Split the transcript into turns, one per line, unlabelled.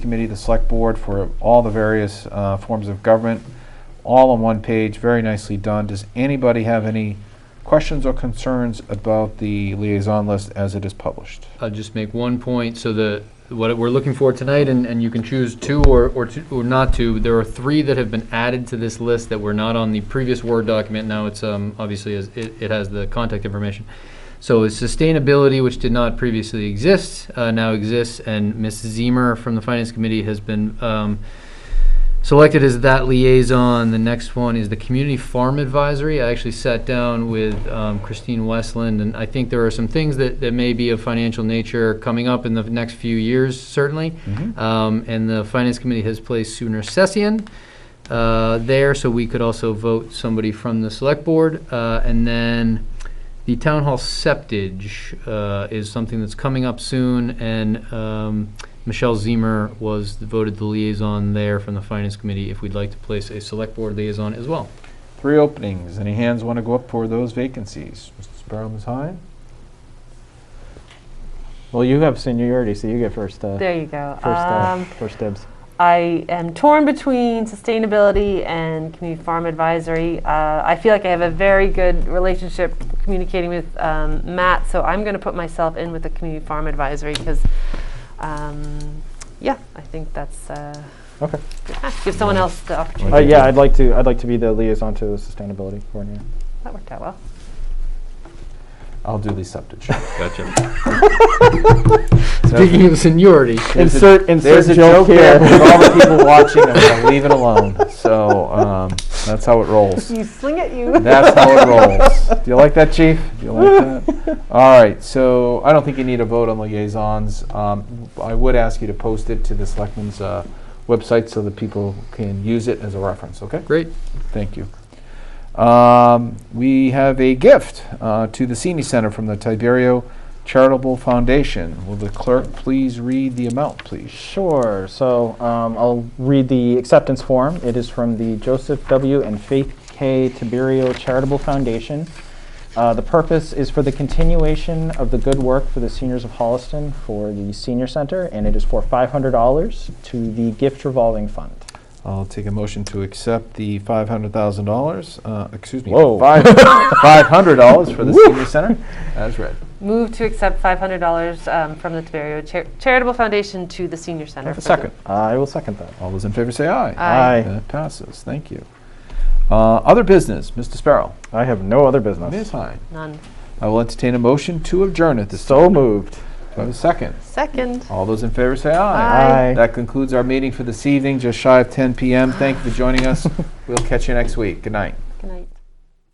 committee, the select board, for all the various uh, forms of government, all on one page, very nicely done. Does anybody have any questions or concerns about the liaison list as it is published?
I'll just make one point, so the, what we're looking for tonight, and, and you can choose two or, or two, or not two, there are three that have been added to this list that were not on the previous Word document, now it's, um, obviously, is- it, it has the contact information. So it's sustainability, which did not previously exist, uh, now exists, and Ms. Zemer from the Finance Committee has been, um, selected as that liaison. The next one is the Community Farm Advisory. I actually sat down with um, Christine Westland, and I think there are some things that, that may be of financial nature coming up in the next few years, certainly.
Mm-hmm.
Mhm.
Um, And the Finance Committee has placed Sue Nersessian uh, there, so we could also vote somebody from the Select Board. Uh, And then the Town Hall Septage uh, is something that's coming up soon, and um, Michelle Zemer was voted the liaison there from the Finance Committee, if we'd like to place a Select Board liaison as well.
Three openings. Any hands want to go up for those vacancies? Mr. Sparrow, Ms. Hine?
Well, you have seniority, so you get first, uh,
There you go.
first, uh,
Um,
first dibs.
I am torn between sustainability and community farm advisory. Uh, I feel like I have a very good relationship communicating with um, Matt, so I'm going to put myself in with the community farm advisory because, um, yeah, I think that's uh,
Okay.
ah, give someone else the opportunity.
Uh, yeah, I'd like to, I'd like to be the liaison to the sustainability coordinator.
That worked out well.
I'll do the septage.
Gotcha. Speaking of seniority,
There's a-
Insert-
there's
insert
a
joke
there,
here.
but With all the people watching, I'm going to leave it alone. So um, that's how it rolls.
You sling it, you.
That's how it rolls. Do you like that, Chief? Do you like that? All right, so I don't think you need a vote on liaisons. Um, I would ask you to post it to the selectmen's uh, website so that people can use it as a reference, okay?
great.
Thank you. Um, we have a gift uh, to the Senior Center from the Tiberio Charitable Foundation. Will the clerk please read the amount, please?
Sure. So um, I'll read the acceptance form. It is from the Joseph W. and Faith K. Tiberio Charitable Foundation. Uh, the purpose is for the continuation of the good work for the seniors of Holliston for the senior center, and it is for $500 to the gift revolving fund.
I'll take a motion to accept the five hundred thousand dollars, uh, excuse me,
Whoa.
five, five hundred dollars for the senior center, as read.
Move to accept $500 um, from the Tiberio Char- Charitable Foundation to the Senior Center.
Have a
for the-
second.
I will second that.
All those in favor say aye.
Aye.
That passes, thank you. Uh, other business, Mr. Sparrow.
I have no other
Ms.
business.
Hine.
None.
I will entertain a motion to adjourn at this time.
So moved.
Do I have a second.
Second.
All those in favor say aye.
Aye.
That concludes our meeting for this evening, just shy of ten PM. Thank you for joining us. We'll catch you next week. Good night.
Good night.